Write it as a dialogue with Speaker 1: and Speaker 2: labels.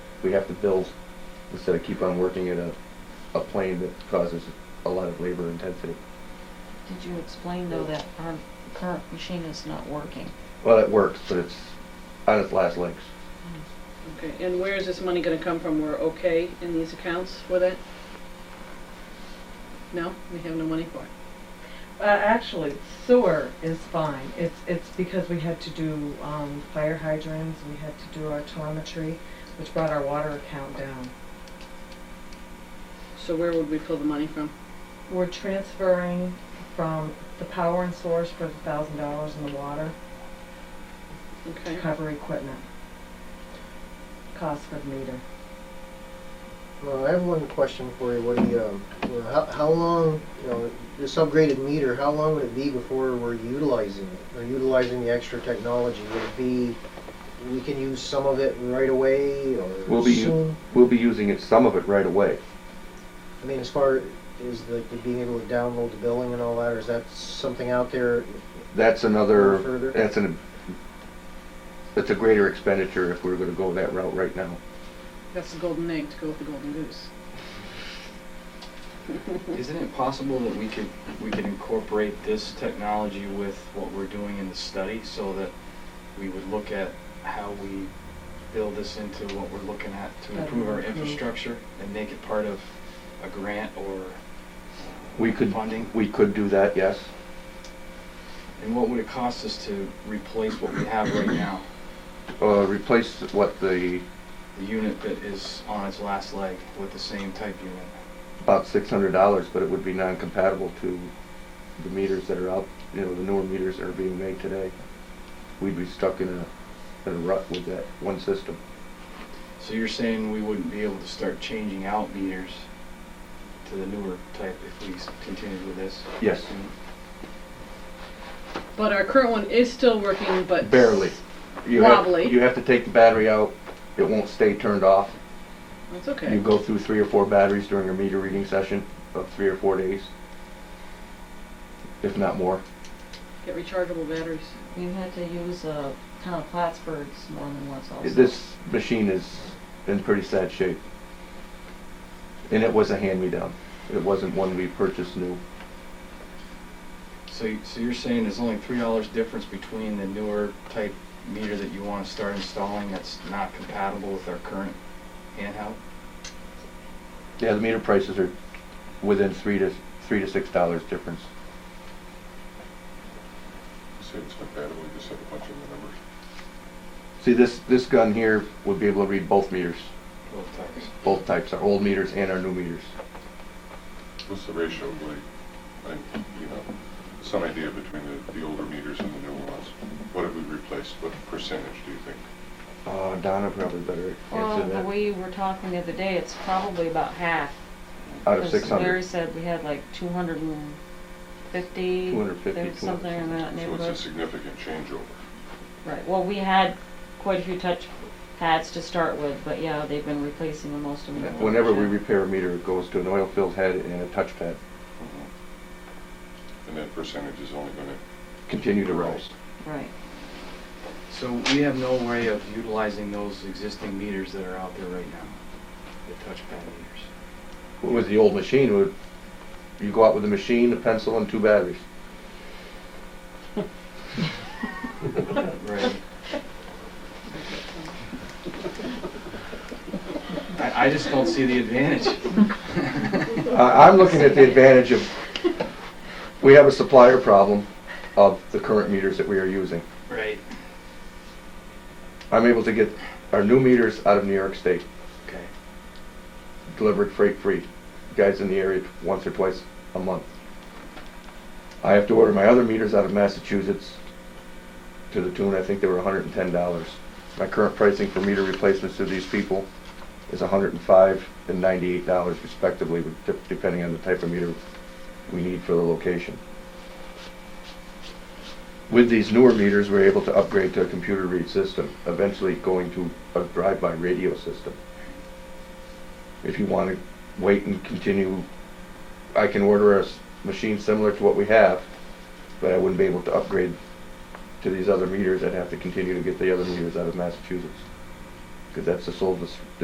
Speaker 1: we have to build instead of keep on working at a, a plane that causes a lot of labor intensity.
Speaker 2: Did you explain though that our current machine is not working?
Speaker 1: Well, it works, but it's on its last legs.
Speaker 3: Okay, and where is this money gonna come from? We're okay in these accounts with it? No, we have no money for it.
Speaker 4: Uh, actually, sewer is fine. It's, it's because we had to do, um, fire hydrants, we had to do our telemetry, which brought our water account down.
Speaker 3: So where would we pull the money from?
Speaker 4: We're transferring from the power and source for the thousand dollars in the water to
Speaker 3: Okay,
Speaker 4: cover equipment. Cost for the meter.
Speaker 5: Well, I have one question for you, Woody. Um, well, how, how long, you know, this upgraded meter, how long would it be before we're utilizing it? Or utilizing the extra technology? Would it be, we can use some of it right away or
Speaker 1: We'll be u-
Speaker 5: soon?
Speaker 1: We'll be using it, some of it right away.
Speaker 5: I mean, as far as the, the being able to download the billing and all that, or is that something out there?
Speaker 1: That's another,
Speaker 5: Further.
Speaker 1: that's an, that's a greater expenditure if we're gonna go that route right now.
Speaker 3: that's the golden egg to go with the golden goose.
Speaker 6: Isn't it possible that we could, we could incorporate this technology with what we're doing in the study so that we would look at how we build this into what we're looking at to improve our infrastructure and make it part of a grant or uh,
Speaker 1: We could,
Speaker 6: funding?
Speaker 1: we could do that, yes.
Speaker 6: And what would it cost us to replace what we have right now?
Speaker 1: Uh, replace what the,
Speaker 6: The unit that is on its last leg with the same type unit?
Speaker 1: about six hundred dollars, but it would be non-compatible to the meters that are out, you know, the newer meters that are being made today. We'd be stuck in a, in a rut with that one system.
Speaker 6: So you're saying we wouldn't be able to start changing out meters to the newer type if we s- continued with this?
Speaker 1: Yes.
Speaker 3: But our current one is still working, but.
Speaker 1: Barely. You have-
Speaker 3: Wobbly.
Speaker 1: You have to take the battery out, it won't stay turned off.
Speaker 3: That's okay.
Speaker 1: You go through three or four batteries during your meter reading session of three or four days, if not more.
Speaker 3: Get rechargeable batteries.
Speaker 2: You had to use a kind of Plattsburgh's more than once also.
Speaker 1: This machine is in pretty sad shape. And it was a hand-me-down. It wasn't one we purchased new.
Speaker 6: So, y- so you're saying there's only three dollars difference between the newer type meter that you wanna start installing that's not compatible with our current handheld?
Speaker 1: Yeah, the meter prices are within three to, three to six dollars difference.
Speaker 7: Say it's compatible, you just have a bunch of the numbers.
Speaker 1: See, this, this gun here would be able to read both meters,
Speaker 6: Both types.
Speaker 1: both types, our old meters and our new meters.
Speaker 7: What's the ratio, like, like, you know, some idea between the, the older meters and the newer ones? What have we replaced? What percentage do you think?
Speaker 1: Uh, Donna probably better
Speaker 2: Well,
Speaker 1: answer
Speaker 2: the
Speaker 1: that.
Speaker 2: way you were talking the other day, it's probably about half.
Speaker 1: Out of
Speaker 2: 'cause
Speaker 1: six
Speaker 2: Larry
Speaker 1: hundred.
Speaker 2: said we had like two hundred and fifty.
Speaker 1: 250,
Speaker 2: Something in that
Speaker 7: So it's a
Speaker 2: neighborhood.
Speaker 7: significant changeover.
Speaker 2: Right, well, we had quite a few touch pads to start with, but yeah, they've been replacing the most of them.
Speaker 1: Whenever we repair a meter, it goes to an oil-filled head and a touchpad,
Speaker 7: Mm-hmm. And that percentage is only gonna
Speaker 1: continue to rise.
Speaker 2: Right.
Speaker 6: So we have no way of utilizing those existing meters that are out there right now, the touchpad meters.
Speaker 1: With the old machine, would, you go out with a machine, a pencil, and two batteries.
Speaker 6: Right. I, I just don't see the advantage.
Speaker 1: I, I'm looking at the advantage of, we have a supplier problem of the current meters that we are using.
Speaker 6: Right.
Speaker 1: I'm able to get our new meters out of New York State,
Speaker 6: Okay.
Speaker 1: delivered freight free. Guys in the area once or twice a month. I have to order my other meters out of Massachusetts to the tune, I think they were hundred and ten dollars. My current pricing for meter replacements to these people is hundred and five and ninety-eight dollars respectively, with- dep- depending on the type of meter we need for the location. With these newer meters, we're able to upgrade to a computer read system, eventually going to a drive-by radio system. If you want to wait and continue, I can order a s- machine similar to what we have, but I wouldn't be able to upgrade to these other meters. I'd have to continue to get the other meters out of Massachusetts, because that's the sole dis-